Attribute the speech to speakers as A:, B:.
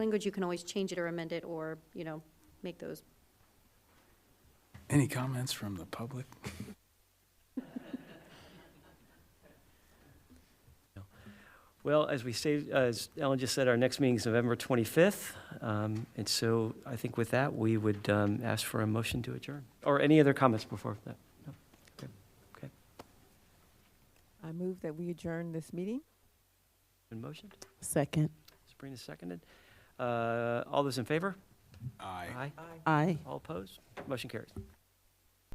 A: language, you can always change it or amend it or, you know, make those.
B: Any comments from the public?
C: Well, as we say, as Ellen just said, our next meeting is November 25th. Um, And so I think with that, we would um, ask for a motion to adjourn. Or any other comments before that? No? Okay. Okay.
D: I move that we adjourn this meeting.
C: Been motioned?
E: Second.
C: Sabrina seconded. Uh, All those in favor?
B: Aye.
C: Aye.
D: Aye.
C: All opposed? Motion carries.